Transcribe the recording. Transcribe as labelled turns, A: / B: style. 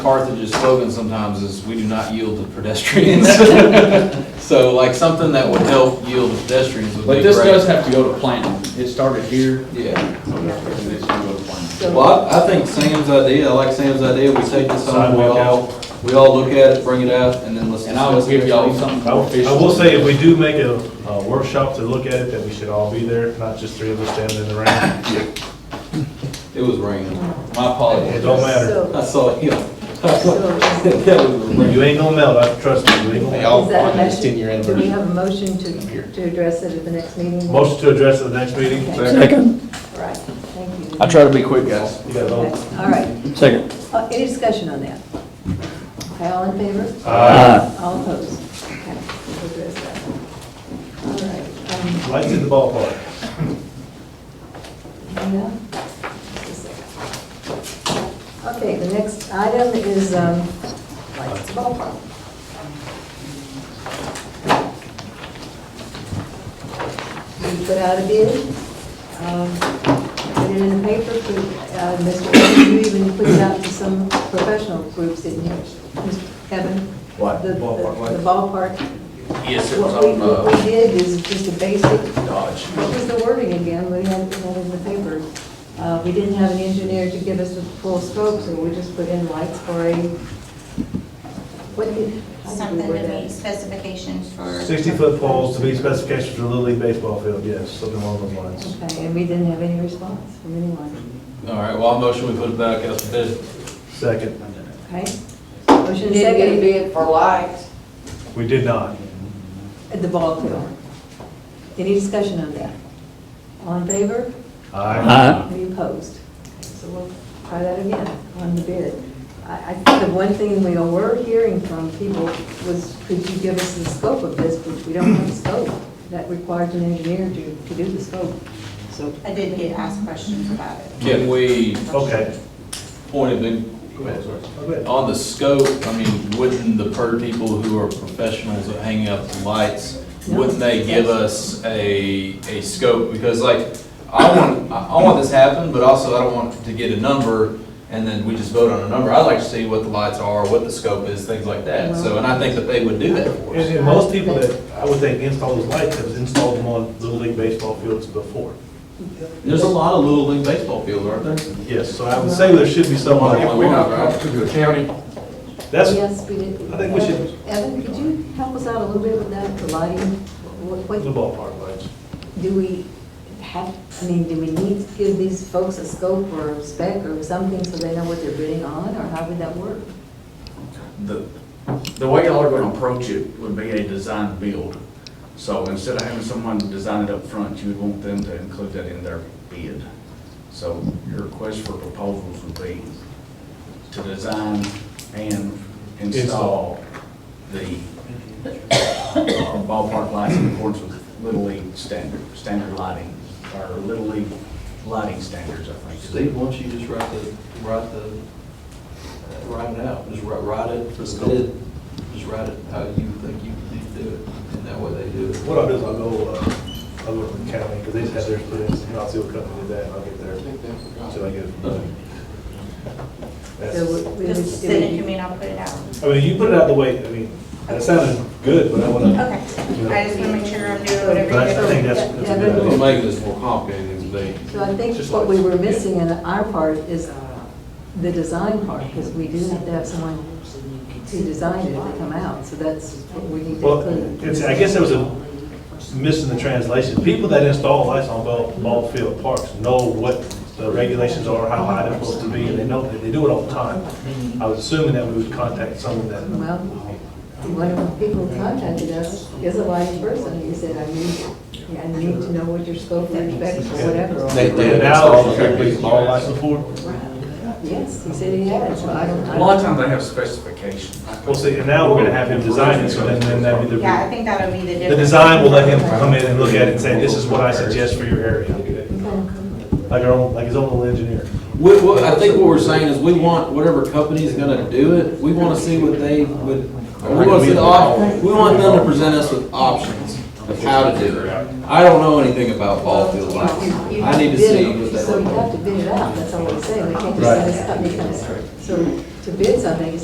A: Carthage's slogan sometimes is, "We do not yield to pedestrians." So like something that would help yield to pedestrians would be
B: But this does
A: great.
B: have to go to planning. It started here,
A: Yeah.
B: and it's gonna go to planning.
A: Well, I I think Sam's idea, I like Sam's idea, we take this home, we all, we all look at it, bring it out, and then let's.
B: And I will
A: discuss
B: give
A: it.
B: y'all something
C: I
B: more
C: will- I
B: official.
C: will say, if we do make a a workshop to look at it, that we should all be there, not just three of us standing in the round.
A: It was raining.
B: My
C: It
B: apologies.
C: don't matter.
A: I saw him.
D: So-
A: That was raining.
C: You ain't gonna melt, I trust me, you ain't gonna melt.
D: Is that a motion? Do we have a motion to, to address it at the next meeting?
C: Motion to address at the next meeting.
D: Right, thank you.
E: I try to be quick, guys.
C: You got
D: Okay,
C: those?
D: All right,
E: Second.
D: Uh, any discussion on that? Okay, all in favor? All opposed? Okay, we'll address that. All right,
C: Lights in the ballpark.
D: um, yeah. Just a second. Okay, the next item is, um, lights ballpark. We put out a bid, um, put it in the paper, put, uh, Mr. Evans, you even put it out to some professional groups, didn't you? Mr. Kevin?
E: What?
D: The- The
E: Ballpark,
D: the ballpark.
E: Yes, it was
D: What we,
E: on,
D: what we
E: uh,
D: did is just a basic
E: Dodge.
D: what was the wording again? We had we had in the paper. Uh, We didn't have an engineer to give us the full scope, so we just put in lights for a, what did? how did we
F: Something
D: word
F: to
D: that?
F: meet specifications for.
C: 60-foot poles to meet specifications for Little League baseball field, yes, something along those lines.
D: Okay, and we didn't have any response from anyone.
A: All right, well, I motion we put it back out to bid.
C: Second,
D: Okay? Motion
G: Didn't get a
D: second
G: bid for lights.
C: we did not.
D: at the ball field. Any discussion on that? All in favor?
C: Aye.
D: Any opposed? Okay, So we'll try that again on the bid. I, I think the one thing we were hearing from people was, could you give us the scope of this, which we don't have the scope. That requires an engineer to, to do the scope. So,
F: I did get asked questions about it.
A: Can we
C: Okay.
A: point it, in-
C: Go ahead, sorry. Go ahead.
A: On the scope, I mean, wouldn't the per people who are professionals at hanging up the lights, wouldn't they give us a, a scope? Because like, I want, I I want this to happen, but also I don't want to get a number and then we just vote on a number. I'd like to see what the lights are, what the scope is, things like that. So, and I think that they would do that for
C: And,
A: us.
C: and most people that, I would think, install those lights have installed them on Little League baseball fields before.
A: There's a lot of Little League baseball fields, aren't there?
C: Yes, so I would say there should be some.
E: If we not talk to the county,
C: That's,
D: yes, we did.
C: I think we should-
D: Evan, could you help us out a little bit with that, the lighting? What,
C: The
D: what,
C: ballpark lights.
D: do we have, I mean, do we need to give these folks a scope or a spec or something so they know what they're bidding on, or how would that work?
E: the, the way y'all are gonna approach it would be a design build. So instead of having someone design it up front, you would want them to include that in their bid. So your request for proposals would be to design and install the uh, ballpark lights in accordance with Little League standard, standard lighting, or Little League lighting standards, I think.
A: Steve, why don't you just write the, write the, uh, write it out, just write, write it for the bid, just write it how you think you need to do it, and that way they do it.
C: What I'll do is I'll go, uh, I'll go to the county, because they just had theirs put in, and I'll see what company did that, and I'll get there, until I get it. from them.
D: So
C: That's-
D: would- would-
F: Just
D: it
F: send
D: would
F: it
D: be-
F: to me and I'll put it out.
C: I mean, you put it out the way, I mean, that sounded good, but I wanna,
F: Okay. I just want to make sure I'm doing whatever.
C: But I
F: you're
C: think
F: doing.
C: that's, that's a good idea.
A: make this more complicated than they.
D: So I think
C: Just
D: what
C: like-
D: we were missing in our part is uh, the design part, because we do have to have someone to design it if they come out, so that's what we need to
C: Well,
D: include.
C: it's, I guess there was a miss in the translation. People that install lights on ball, ball field parks know what the regulations are, how high they're supposed to be, and they know, that they do it all the time. I was assuming that we would contact someone that,
D: Well, one of the people who contacted us is a live person, he said, I need, I need to know what your scope of specs or whatever. are."
A: They did.
C: now, all lights before.
D: Yes, he said he had, so I don't. I
E: A lot of times they have specifications.
C: Well, see, and now we're gonna have him design it, so then, then that'd be
F: Yeah, I
C: the,
F: think that'll be the difference.
C: the design will let him come in and look at it and say, this is what I suggest for your area. Like our own, like his own little engineer.
A: We, we, I think what we're saying is we want whatever company's gonna do it, we wanna see what they would, we wanna see the op, we want them to present us with options of how to do it. I don't know anything about ball field lights,
D: You- you
A: I
D: have
A: need to
D: bid
A: see
D: it,
A: what they.
D: So you have to bid it out, that's all we're saying, we can't just say this company comes. So to bid something,